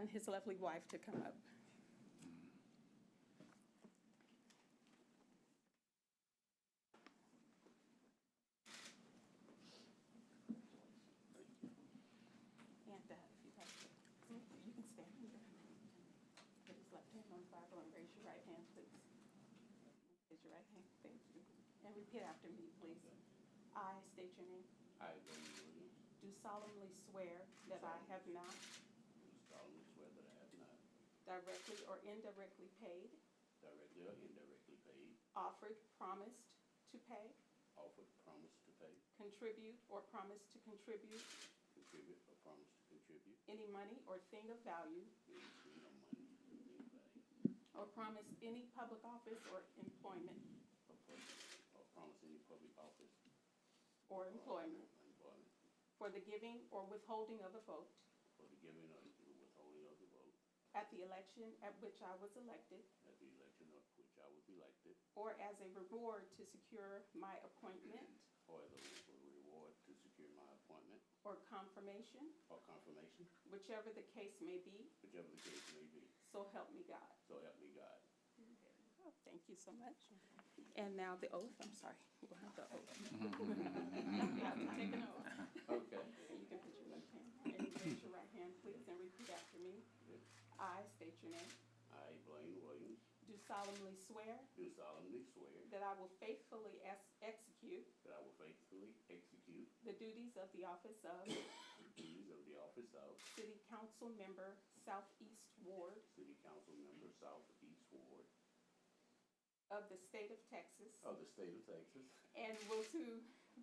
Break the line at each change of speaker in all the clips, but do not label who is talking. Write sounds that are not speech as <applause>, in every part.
and his lovely wife to come up. And uh, if you'd like to, hmm, you can stand here. Put his left hand on the Bible and raise your right hand, please. Raise your right hand, thank you. And repeat after me, please. I state your name.
I, William Williams,
Do solemnly swear that I have not
do solemnly swear that I have not
directly or indirectly paid,
directly or indirectly paid,
offered, promised to pay,
offered, promised to pay,
contribute, or promised to contribute
contribute, or promised to contribute
any money or thing of value,
any sum of money to anybody,
or promised any public office or employment,
or promise, or promise any public office.
or
or
employment,
Employment,
for the giving or withholding of a vote
for the giving or the withholding of the vote
at the election at which I was elected,
at the election of which I was elected,
or as a reward to secure my appointment
or as a for the reward to secure my appointment
or confirmation,
or confirmation,
whichever the case may be,
whichever the case may be.
so help me God.
So help me God.
Oh, Thank you so much. And now the oath, I'm sorry. <laughs> We'll have the oath.
<laughs>
<laughs> You have to take an oath.
Okay.
You can put your left hand and raise your right hand, please, and repeat after me. I state your name.
I, Blaine Williams,
Do solemnly swear
do solemnly swear
that I will faithfully ex- execute
That I will faithfully execute
the duties of the office of
the duties of the office of
City Council Member, Southeast Ward
City Council Member Southeast Ward
of the State of Texas,
of the State of Texas
and will to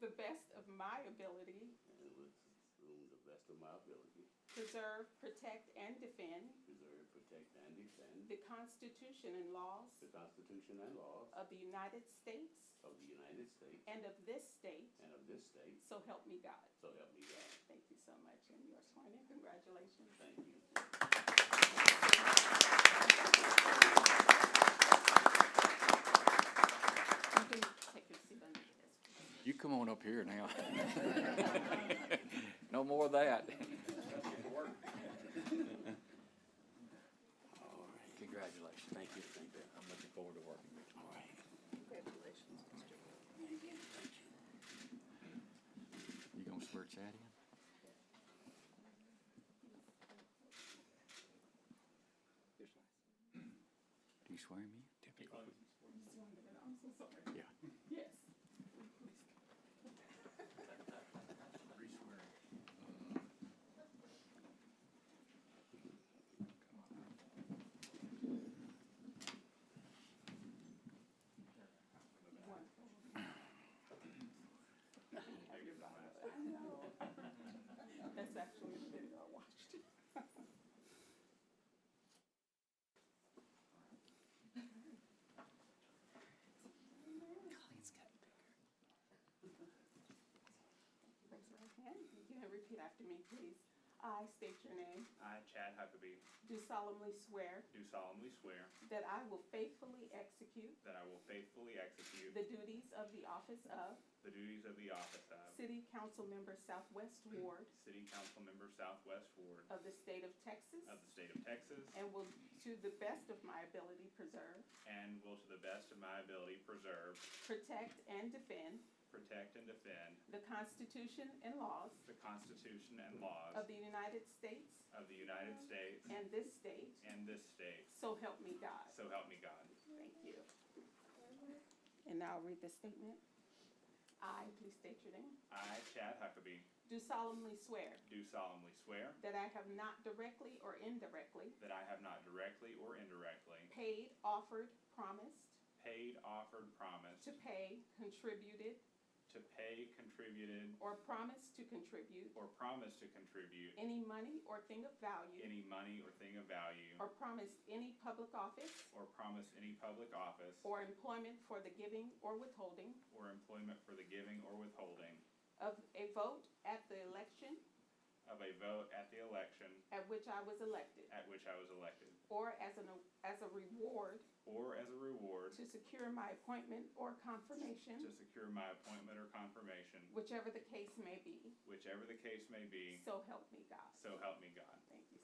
the best of my ability
and will assume the best of my ability
preserve, protect, and defend
preserve, protect, and defend
the Constitution and laws
the Constitution and laws
of the United States
of the United States
and of this state,
and of this state,
so help me God.
so help me God.
Thank you so much, and you are sworn in. Congratulations.
Thank you.
You can take your seat under the desk.
You come on up here now. <laughs> No more of
All right,
that. Congratulations.
thank you, thank you.
I'm looking forward to working with
All right.
Congratulations, Mr.
Thank you, thank you.
you. You gonna swear Chad in? Do you swear me? Typically.
I'm so sorry.
Yeah.
Yes. Wonderful. Have your Bible. I know. That's actually the video I watched.
Colleen's got bigger.
Raise your right hand. You can repeat after me, please. I state your name.
I, Chad Huckabee,
Do solemnly swear
do solemnly swear
that I will faithfully execute
that I will faithfully execute
the duties of the office of
the duties of the office of
City Council Member Southwest
Mm.
Ward
City Council Member Southwest Ward
of the State of Texas
of the State of Texas
and will, to the best of my ability, preserve,
and will to the best of my ability preserve,
protect, and defend
protect, and defend
the Constitution and laws
the Constitution and laws
of the United States
of the United States
and this state,
and this state.
so help me God.
So help me God.
Thank you. And now I'll read the statement. I, please state your name,
I, Chad Huckabee,
do solemnly swear
do solemnly swear
that I have not directly or indirectly
that I have not directly or indirectly
paid, offered, promised
paid, offered, promised
to pay, contributed,
to pay, contributed,
or promised to contribute
or promised to contribute
any money or thing of value,
any money or thing of value,
or promised any public office
or promised any public office
or employment for the giving or withholding
or employment for the giving or withholding
of a vote at the election
of a vote at the election
at which I was elected,
at which I was elected,
or as an, as a reward
or as a reward
to secure my appointment or confirmation,
to secure my appointment or confirmation,
whichever the case may be,
whichever the case may be,
so help me God.
so help me God.
Thank you.